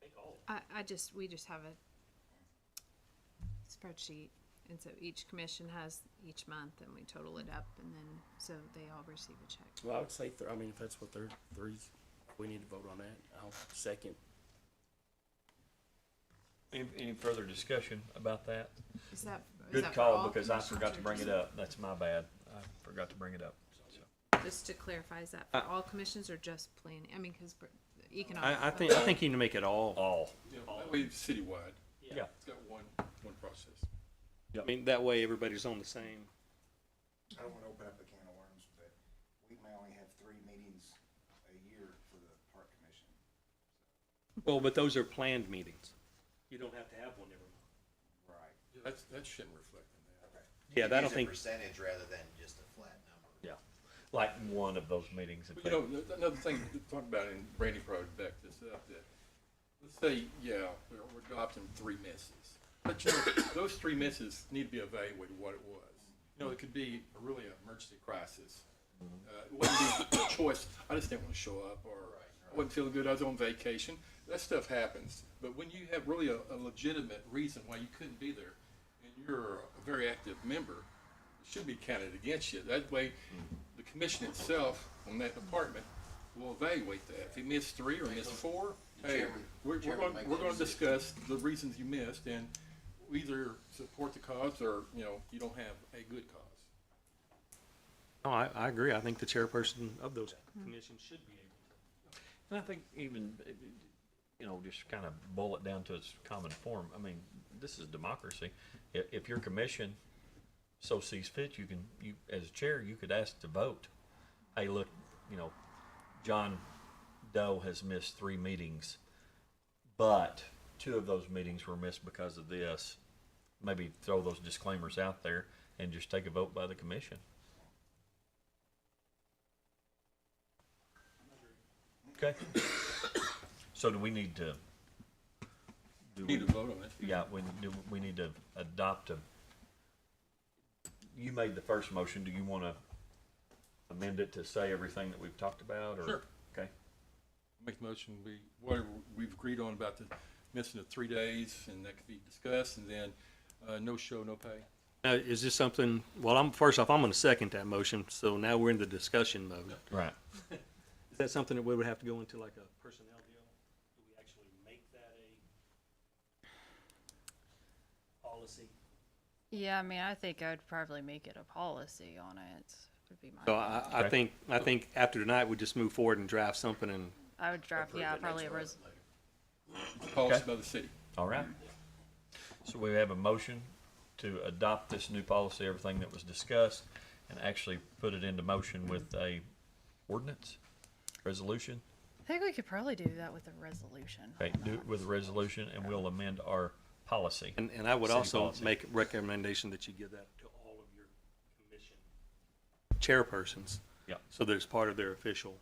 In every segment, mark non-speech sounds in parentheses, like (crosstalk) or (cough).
take all. of it. I, I just, we just have a spreadsheet, and so each commission has each month, and we total it up, and then, so they all receive a check. Well, I would say, th- I mean, if that's what they're, three, we need to vote on that. I'll second. Any, any further discussion about that? Is that? is Good that for call, all because I commissions forgot or to bring it just- up. That's my bad. I forgot to bring it up. So, Just to clarify, is that for all commissions or just planning? I mean, because economic. I, I think, I think you need to make it all. All, Yeah, that way it's citywide, yeah. it's got one, one process. I mean, that way everybody's on the same. I don't wanna open up a can of worms, but we may only have three meetings a year for the park commission. Well, but those are planned meetings. You don't have to have one every month. Right. Yeah, That's, that shouldn't reflect on that. Yeah, that I don't Use a think, Percentage rather than just a flat number. Yeah, like one of those meetings. if But you they- know, th- another thing to talk about, and Brandy probably backed this up, that, let's say, yeah, we're, we're adopting three misses. But you know, (coughs) those three misses need to be evaluated what it was. You know, it could be a really an emergency crisis. Uh, it wouldn't be (coughs) a choice, I just didn't want to show up, or I wasn't feeling good, I was on vacation. That stuff happens. But when you have really a, a legitimate reason why you couldn't be there, and you're a very active member, should be counted against you. That way, the commission itself on that department will evaluate that. If he missed three or missed four, hey, chairman- we're, we're chairman going, make we're that going to decision. discuss the reasons you missed and we either support the cause or, you know, you don't have a good cause. no, I, I agree. I think the chairperson of those commissions should be able. And I think even, eh, you know, just kind of boil it down to its common form. I mean, this is democracy. If, if your commission so sees fit, you can, you, as chair, you could ask to vote. Hey, look, you know, John Doe has missed three meetings, but two of those meetings were missed because of this. Maybe throw those disclaimers out there and just take a vote by the commission. Okay. (coughs) So do we need to? do Need we- to vote on it. Yeah, we, do, we need to adopt a, you made the first motion, do you wanna amend it to say everything that we've talked about, or? Sure. Okay, Make the motion, we, whatever we've agreed on about the missing of three days and that could be discussed and then, uh, no show, no pay. Now, is this something, well, I'm, first off, I'm gonna second that motion, so now we're in the discussion mode. right. Is that something that we would have to go into like a personnel deal? Do we actually make that a policy? Yeah, I mean, I think I'd probably make it a policy on it, would be my. So I, I Okay. think, I think after tonight, we just move forward and draft something and I would draft, yeah, probably a res, Policy by the city. All right. So we have a motion to adopt this new policy, everything that was discussed, and actually put it into motion with a ordinance, resolution? I think we could probably do that with a resolution. Okay, Hold do on. it with a resolution, and we'll amend our policy. And, and I would City also policy. make recommendation that you give that to all of your commission chairpersons, Yeah. so that it's part of their official.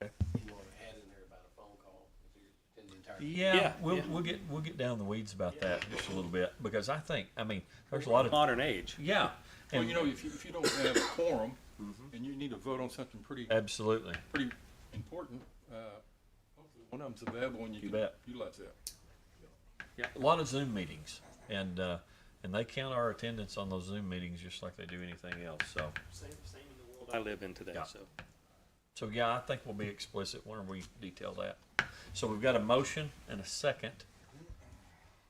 You want to add in there about a phone call if you're in the entire. Yeah, Yeah, we'll, yeah. we'll get, we'll get down in the weeds about that just a little bit, because I think, I mean, there's a lot of, Modern age. yeah. Well, and- Mm-hmm. you know, if you, if you don't have a quorum and you need to vote on something pretty Absolutely. pretty important. Uh, hopefully one of them's available and you You can bet. utilize that. Yeah, a lot of Zoom meetings, and uh, and they count our attendance on those Zoom meetings just like they do anything else. So, Same, same in the world I live in today, Yeah. so. so yeah, I think we'll be explicit when we detail that. So we've got a motion and a second.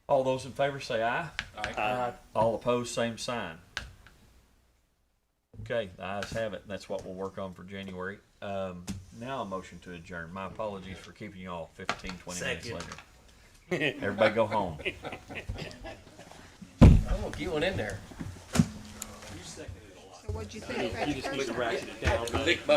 All those in favor say aye. Aye. All opposed, same sign. Okay, the ayes have it. That's what we'll work on for January. Um, now a motion to adjourn. My apologies for keeping you all 15, 20 minutes Second. later. Everybody go home. I'm gonna get one in there. So what'd you think? You just need to ratchet it down.